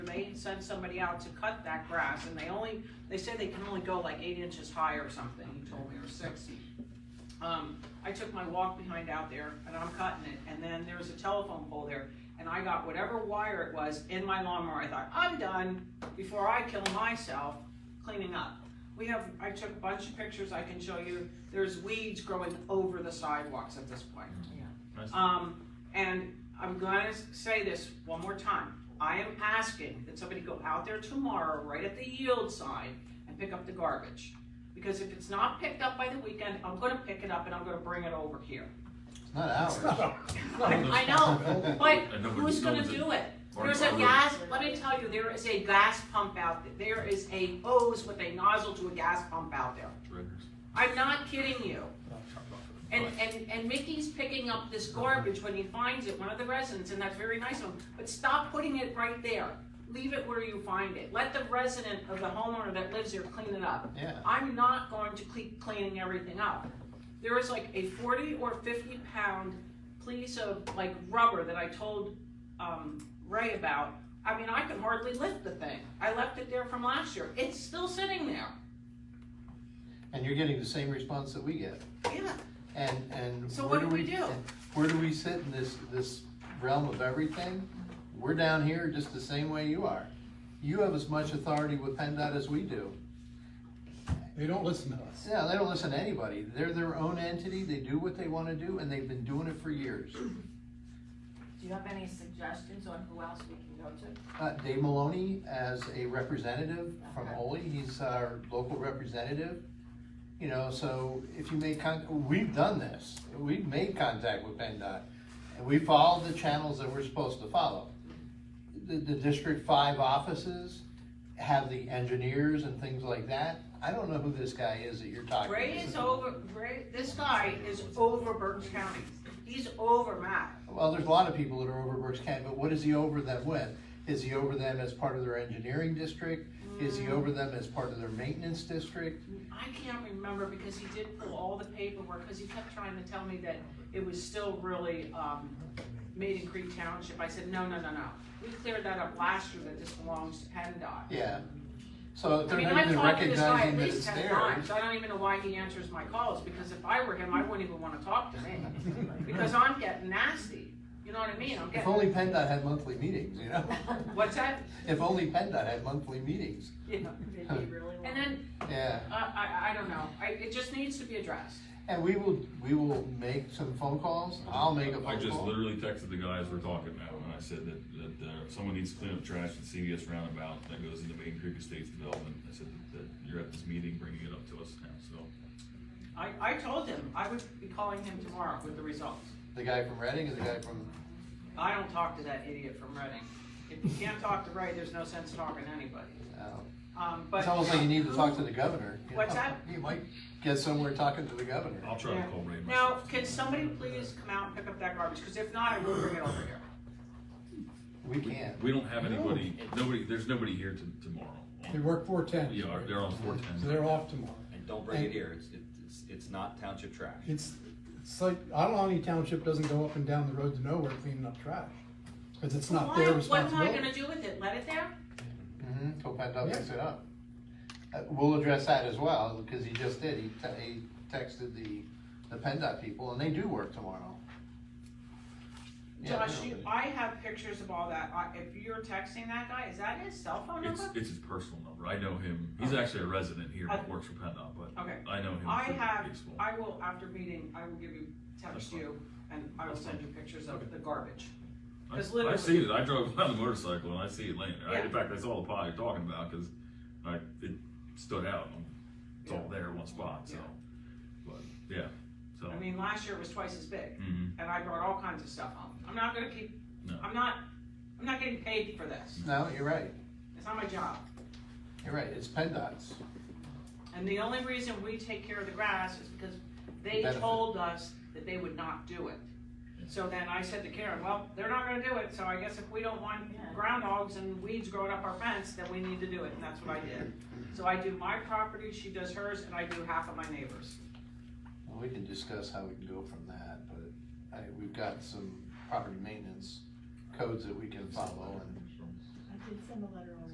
they send somebody out to cut that grass, and they only, they say they can only go like eight inches high or something, he told me, or six. Um, I took my walk behind out there, and I'm cutting it, and then there was a telephone pole there, and I got whatever wire it was in my lawnmower, I thought, I'm done, before I kill myself cleaning up. We have, I took a bunch of pictures I can show you, there's weeds growing over the sidewalks at this point. Nice. Um, and I'm gonna s- say this one more time. I am asking that somebody go out there tomorrow, right at the yield sign, and pick up the garbage. Because if it's not picked up by the weekend, I'm gonna pick it up and I'm gonna bring it over here. It's not ours. I know, but And nobody- who's gonna nobody- do it? Or- There's a or- gas, let me tell you, there is a gas pump out, th- there is a hose with a nozzle to a gas pump out there. I'm not kidding you. And, and, and Mickey's picking up this garbage when he finds it, one of the residents, and that's very nice of him, but stop putting it right there. Leave it where you find it. Let the resident of the homeowner that lives there clean it up. Yeah. I'm not going to keep cleaning everything up. There is like a forty or fifty pound piece of like rubber that I told, um, Ray about. I mean, I could hardly lift the thing. I left it there from last year. It's still sitting there. And you're getting the same response that we get. Yeah. And, and. So where what do we do? Where do we sit in this, this realm of everything? We're down here just the same way you are. You have as much authority with PennDOT as we do. They don't listen to us. Yeah, they don't listen to anybody. They're their own entity. They do what they wanna do and they've been doing it for years. Do you have any suggestions on who else we can go to? Uh, Dave Maloney as a representative from Ole, he's our local representative. You know, so if you make con, we've done this, we've made contact with PennDOT, and we followed the channels that we're supposed to follow. The, the District Five offices have the engineers and things like that. I don't know who this guy is that you're talking Ray is to. over, Ray, this guy is over Bergen County. He's over Matt. Well, there's a lot of people that are over Berks County, but what is he over them with? Is he over them as part of their engineering district? Is he over them as part of their maintenance district? I can't remember because he did pull all the paperwork, because he kept trying to tell me that it was still really, um, made in Creek Township. I said, no, no, no, no. We cleared that up last year that this belongs to PennDOT. Yeah. So I they're mean, not I've even talked to this guy at recognizing that least it's ten theirs. times. I don't even know why he answers my calls, because if I were him, I wouldn't even wanna talk to me. Because I'm getting nasty. You know what I mean? I'm If getting, only PennDOT had monthly meetings, you know? what's that? If only PennDOT had monthly meetings. Yeah. And then uh, Yeah. I, I, I don't know, I, it just needs to be addressed. And we will, we will make some phone calls. I'll make a I phone just call. literally texted the guys we're talking now, and I said that, that, uh, someone needs to clean up trash at CVS Roundabout that goes into Main Creek Estates Development. I said that, that you're at this meeting, bringing it up to us now, so. I, I told him, I would be calling him tomorrow with the results. The guy from Reading and the guy from, I don't talk to that idiot from Reading. If you can't talk to Ray, there's no sense talking to anybody. uh, Um, but. it's almost like you need to talk to the governor. you What's know? that? You might get somewhere talking to the governor. I'll try to call Ray Now, myself. can somebody please come out and pick up that garbage, cause if not, I will bring it over here. We can. We don't have anybody, nobody, there's nobody here to, They tomorrow. work four ten. Yeah, they're on four So ten. they're off tomorrow. And don't bring it here, it's, it's, it's not township trash. It's, it's like, I don't know any township doesn't go up and down the road to nowhere cleaning up trash. Cause it's not Why, their what am I gonna responsibility. do with it, let it there? Mm-hmm, till PennDOT picks Yeah. it up. Uh, we'll address that as well, because he just did, he, te- he texted the, the PennDOT people, and they do work tomorrow. Yeah, Josh, you, nobody. I have pictures of all that, I, if you're texting that guy, is that his cell phone It's, number? it's his personal number. I know him. He's actually a resident here, but works for PennDOT, but Okay. I know him. I through have, baseball. I will, after meeting, I will give you, That's text fine. you, and I will That's send you fine. pictures Okay. of the garbage. I- Because literally- I see it. I drove on the motorcycle and I see it laying there. I- Yeah. In fact, I saw the pot you're talking about because I it stood out. and It's all there in one spot. So, Yeah. but yeah. So I mean, last year it was twice as big, mhm. and I brought all kinds of stuff home. I'm not gonna keep, No. I'm not, I'm not getting paid for this. No, you're right, It's not my job. you're right, it's PennDOT's. And the only reason we take care of the grass is because they Benefit. told us that they would not do it. So then I said to Karen, well, they're not gonna do it, so I guess if we don't want Yeah. groundhogs and weeds growing up our fence, then we need to do it, and that's what I did. So I do my property, she does hers, and I do half of my neighbors. Well, we can discuss how we can go from that, but I, we've got some property maintenance codes that we can follow, and did send a letter already.